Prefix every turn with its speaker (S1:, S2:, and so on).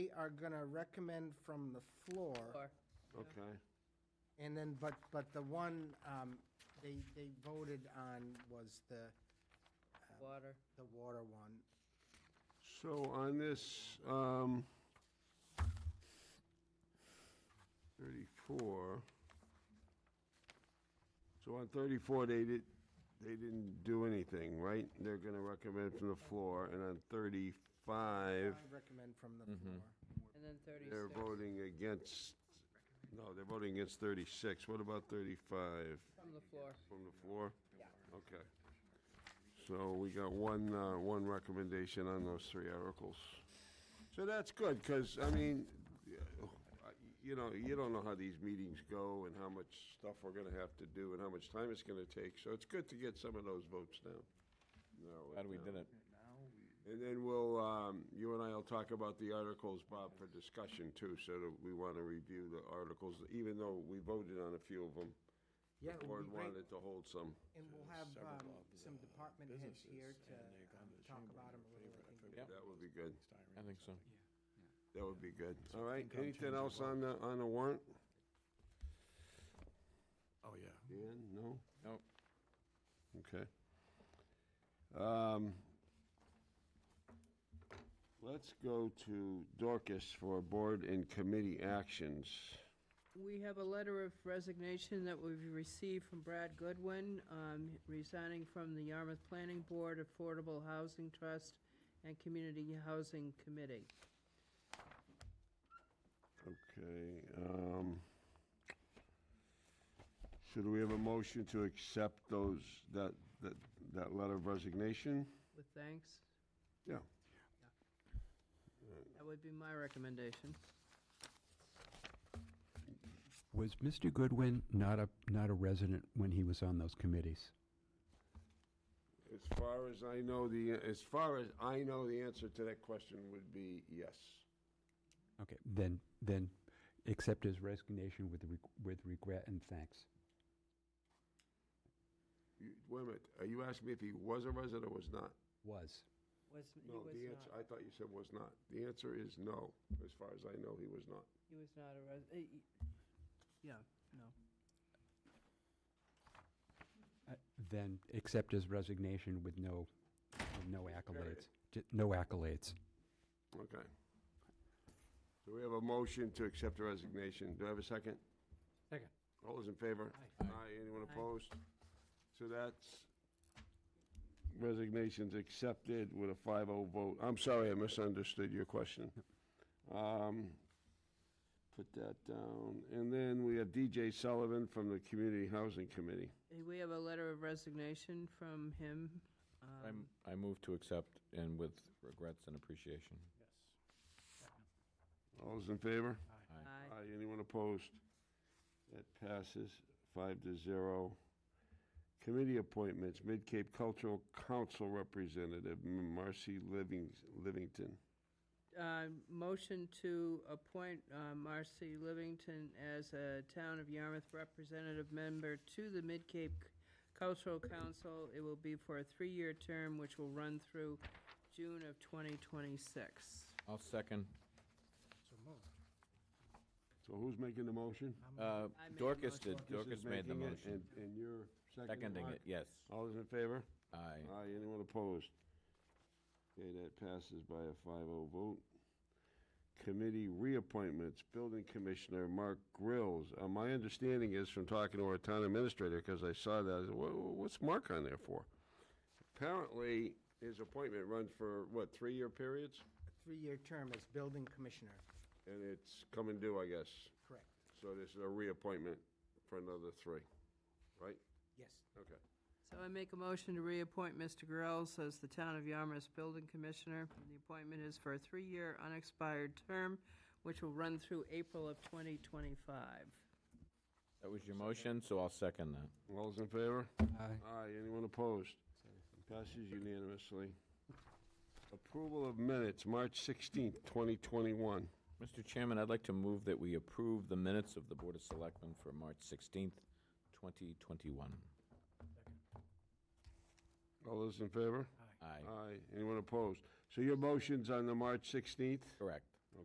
S1: are gonna recommend from the floor,
S2: Or-
S3: Okay.
S1: and then, but, but the one, um, they, they voted on was the,
S2: Water.
S1: the water one.
S3: So on this, um, thirty-four. So on thirty-four, they did, they didn't do anything, right? They're gonna recommend from the floor, and on
S1: I
S3: thirty-five,
S1: recommend from the
S4: Mm-hmm.
S1: floor.
S2: And then 36.
S3: they're voting against, no, they're voting against thirty-six. What about thirty-five?
S2: From the floor.
S3: From the floor? Yeah. Okay. So we got one, uh, one recommendation on those three articles. So that's good, because, I mean, y- you know, you don't know how these meetings go and how much stuff we're gonna have to do and how much time it's gonna take, so it's good to get some of those votes down. Narrow
S5: Glad we
S3: down.
S5: did it.
S3: And then we'll, um, you and I will talk about the articles, Bob, for discussion too, so that we want to review the articles, even though we voted on a few of them.
S1: Yeah, it
S3: The
S1: would
S3: board
S1: be great.
S3: wanted to hold some.
S1: And we'll have,
S4: several
S1: um,
S4: of the uh,
S1: some department heads here
S4: businesses,
S1: to
S4: and they've gone
S1: um,
S4: to the
S1: talk
S4: chamber
S1: about them
S4: and
S1: a
S4: their
S1: little, I think.
S4: favorite, I
S5: Yep.
S3: That would be good.
S4: Styrene
S5: I
S4: or
S3: That would
S5: think so.
S4: something.
S3: be good. All right, anything
S4: FinCom changed
S3: else
S4: the law.
S3: on the, on the warrant?
S4: Oh, yeah.
S3: Dan, no?
S5: Nope.
S3: Okay. Um, Let's go to Dorcas for board and committee actions.
S2: We have a letter of resignation that we've received from Brad Goodwin, um, resigning from the Yarmouth Planning Board, Affordable Housing Trust, and Community Housing Committee.
S3: Okay, um, should we have a motion to accept those, that, that, that letter of resignation?
S2: With thanks.
S3: Yeah.
S2: That would be my recommendation.
S6: Was Mr. Goodwin not a, not a resident when he was on those committees?
S3: As far as I know, the, as far as I know, the answer to that question would be yes.
S6: Okay, then, then accept his resignation with, reg- with regret and thanks.
S3: You- Wait a minute, are you asking me if he was a resident or was not?
S6: Was.
S2: Was, he
S3: No,
S2: was
S3: the answer,
S2: not,
S3: I thought you said was not. The answer is no, as far as I know, he was not.
S2: he was not a res, eh, y- yeah, no.
S6: Uh, Then accept his resignation with no, with no accolades. Ju- No accolades.
S3: Okay. So we have a motion to accept the resignation. Do I have a second?
S6: Second.
S3: All those in favor?
S6: Aye.
S3: Aye, anyone
S2: Aye.
S3: opposed? So that's resignations accepted with a 5-0 vote. I'm sorry, I misunderstood your question. Um, Put that down. And then we have DJ Sullivan from the Community Housing Committee.
S2: Eh, We have a letter of resignation from him.
S5: I'm,
S2: um,
S5: I move to accept and with regrets and appreciation.
S3: All those in favor?
S5: Aye.
S2: aye.
S3: Aye, anyone opposed? That passes five to zero. Committee appointments, Mid-Cape Cultural Council Representative Marcy Livings- Livington.
S2: uh, motion to appoint uh, Marcy Livington as a Town of Yarmouth representative member to the Mid-Cape Cultural Council. It will be for a three-year term, which will run through June of 2026.
S5: I'll second.
S1: So moved.
S3: So who's making the motion?
S5: Uh,
S2: I made the
S5: Dorcas
S2: motion.
S5: did,
S3: This
S5: Dorcas
S3: is
S5: made the
S3: making it,
S5: motion.
S3: and- And you're seconding
S5: Seconding
S3: Mark?
S5: it, yes.
S3: All those in favor?
S5: Aye.
S3: Aye, anyone opposed? Okay, that passes by a 5-0 vote. Committee reappointments, Building Commissioner Mark Grills. Uh, My understanding is from talking to our town administrator, because I saw that, I said, "Wha- what's Mark on there for? Apparently, his appointment runs for, what, three-year periods?
S1: A three-year term as building commissioner,
S3: And it's come and due, I guess.
S1: correct,
S3: So this is a reappointment for another three, right?
S1: yes.
S3: Okay.
S2: So I make a motion to reappoint Mr. Grills as the Town of Yarmouth Building Commissioner. The appointment is for a three-year unexpired term, which will run through April of 2025.
S5: That was your motion, so I'll second that.
S3: All those in favor?
S6: Aye.
S3: Aye, anyone opposed? Passes unanimously. Approval of minutes, March 16th, 2021.
S5: Mr. Chairman, I'd like to move that we approve the minutes of the Board of Selectmen for March 16th, 2021.
S3: All those in favor?
S5: Aye.
S3: Aye, anyone opposed? So your motion's on the March 16th?
S5: Correct.